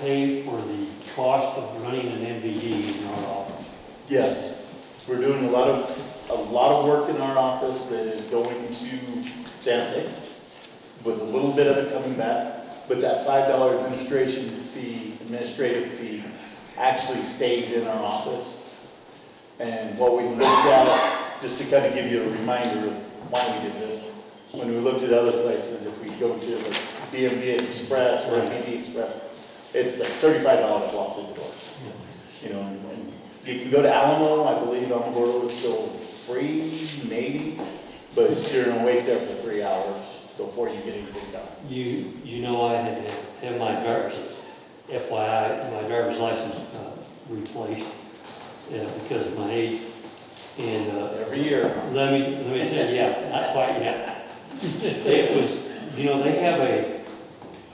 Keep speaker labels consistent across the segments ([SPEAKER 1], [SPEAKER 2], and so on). [SPEAKER 1] pay for the cost of running an MVD in our office?
[SPEAKER 2] Yes, we're doing a lot of, a lot of work in our office that is going to Santa Fe, with a little bit of it coming back, but that five dollar administration fee, administrative fee, actually stays in our office. And what we looked at, just to kind of give you a reminder of why we did this, when we looked at other places, if we go to the DMV Express or MD Express, it's like thirty-five dollars to walk through the door you know, and- and you can go to Alamo, I believe Alamogordo is still free, maybe, but you're gonna wait there for three hours before you get anything done.
[SPEAKER 1] You, you know I had to have my driver's, FYI, my driver's license uh, replaced uh, because of my age. And uh,
[SPEAKER 2] Every year,
[SPEAKER 1] Let me, let me tell you, yeah, not quite yet. It was, you know, they have a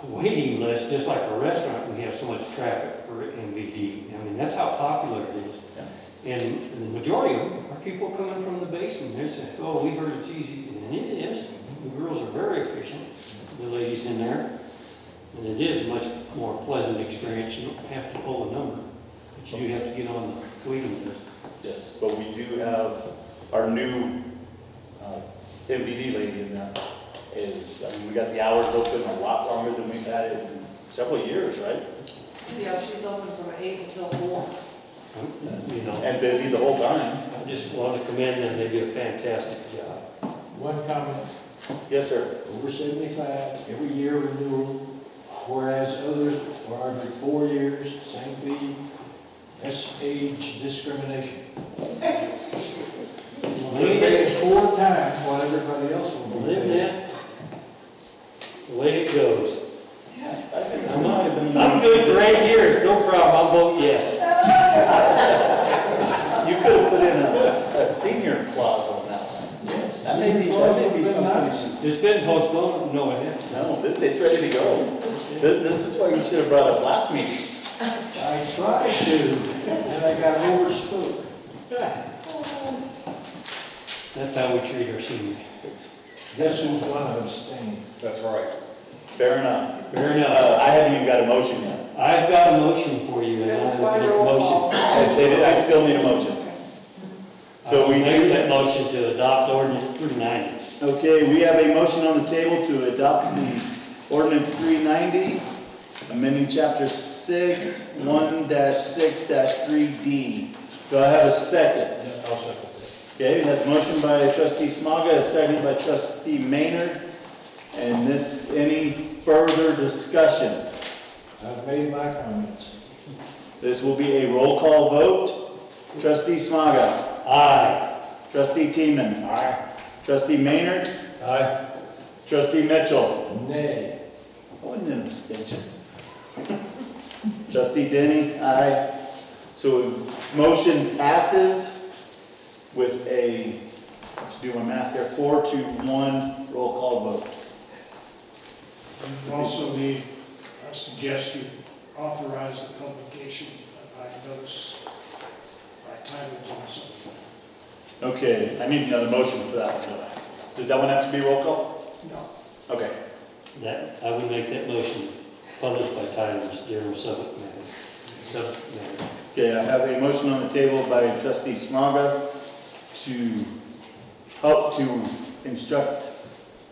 [SPEAKER 1] a waiting list, just like a restaurant, we have so much traffic for MVD. I mean, that's how popular it is. And the majority of them are people coming from the basin, they say, oh, we heard it's easy, and it is. The girls are very efficient, the ladies in there. And it is a much more pleasant experience, you don't have to pull a number, but you do have to get on the waiting list.
[SPEAKER 2] yes, but we do have our new uh, MVD lady in there is, I mean, we got the hours open a lot longer than we've had it in several years, right?
[SPEAKER 3] Yeah, she's open from eight until four.
[SPEAKER 1] You know,
[SPEAKER 2] And busy the whole time.
[SPEAKER 1] I just want to commend them, they do a fantastic job.
[SPEAKER 4] One comment,
[SPEAKER 2] Yes, sir.
[SPEAKER 4] over seventy-five, every year renewal, whereas others are every four years, same fee. That's age discrimination. They pay four times what everybody else will be
[SPEAKER 1] Live
[SPEAKER 4] paying.
[SPEAKER 1] that, way it goes.
[SPEAKER 2] I think I
[SPEAKER 1] I'm
[SPEAKER 2] might have been-
[SPEAKER 1] I'm good for eight years, no problem, I'll vote yes.
[SPEAKER 2] You could have put in a a senior clause on that one.
[SPEAKER 4] Yes.
[SPEAKER 2] That may be, that may be
[SPEAKER 4] Well,
[SPEAKER 2] something.
[SPEAKER 1] It's been postponed, no, it hasn't.
[SPEAKER 2] No, this, it's ready to go. This, this is why you should have brought up last meeting.
[SPEAKER 4] I tried to, and I got overspoke.
[SPEAKER 1] That's how we treat our seniors.
[SPEAKER 2] It's
[SPEAKER 4] This is one of those things.
[SPEAKER 5] That's right.
[SPEAKER 2] Fair enough.
[SPEAKER 1] Fair
[SPEAKER 2] Uh,
[SPEAKER 1] enough.
[SPEAKER 2] I haven't even got a motion yet.
[SPEAKER 1] I've got a motion for you, and I
[SPEAKER 3] That's
[SPEAKER 1] have
[SPEAKER 3] why
[SPEAKER 1] a
[SPEAKER 3] roll
[SPEAKER 1] motion.
[SPEAKER 3] call.
[SPEAKER 2] I, they- I still need a motion. So we
[SPEAKER 1] I make
[SPEAKER 2] do,
[SPEAKER 1] that motion to adopt ordinance three ninety.
[SPEAKER 2] okay, we have a motion on the table to adopt the ordinance three ninety, amending chapter six, one six three D. Do I have a second?
[SPEAKER 4] I'll second
[SPEAKER 2] Okay, we have a motion by trustee Smaga, a second by trustee Maynard. And this, any further discussion?
[SPEAKER 4] that. I've made my comments.
[SPEAKER 2] This will be a roll call vote. Trustee Smaga.
[SPEAKER 1] Aye.
[SPEAKER 2] Trustee Teeman. Aye. Trustee Maynard.
[SPEAKER 4] Aye.
[SPEAKER 2] Trustee Mitchell.
[SPEAKER 4] Nay.
[SPEAKER 2] Oh, I wouldn't an abstention. Trustee Denny. Aye. So motion passes with a, let's do my math here, four to one roll call vote.
[SPEAKER 6] You also need, I suggest you authorize the publication by notice, by title, or something.
[SPEAKER 2] Okay, I need another motion for that one, don't I? Does that one have to be roll call?
[SPEAKER 6] No.
[SPEAKER 2] Okay,
[SPEAKER 1] That, I would make that motion published by title, Mr. Darrell Subic, Madam. Subic, Madam.
[SPEAKER 2] okay, I have a motion on the table by trustee Smaga to help to instruct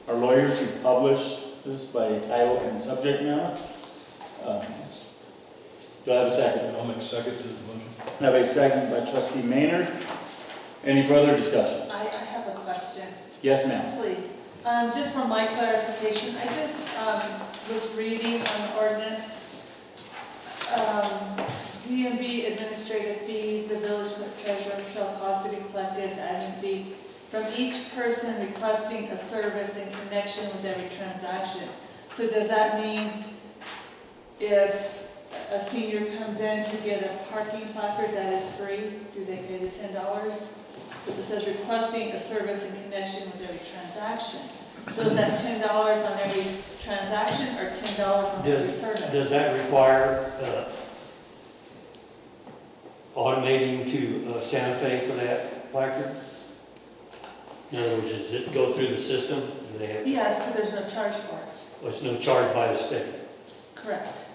[SPEAKER 2] our lawyer to publish this by title and subject matter. Uh, Do I have a second?
[SPEAKER 5] I'll make a second to the motion.
[SPEAKER 2] I have a second by trustee Maynard. Any further discussion?
[SPEAKER 3] I, I have a question,
[SPEAKER 2] Yes, ma'am.
[SPEAKER 3] please. Um, just for my clarification, I just, um, was reading on ordinance, um, DMV administrative fees, the village treasurer shall cause to be collected, admin fee, from each person requesting a service in connection with every transaction. So does that mean if a senior comes in to get a parking placard that is free, do they pay the ten dollars? But it says requesting a service in connection with every transaction. So is that ten dollars on every transaction or ten dollars on every
[SPEAKER 1] Does-
[SPEAKER 3] service?
[SPEAKER 1] Does that require uh, automating to uh, Santa Fe for that placard? In other words, does it go through the system? Do they have,
[SPEAKER 3] Yes, but there's no charge for it,
[SPEAKER 1] oh, it's no charge by the state?
[SPEAKER 3] correct?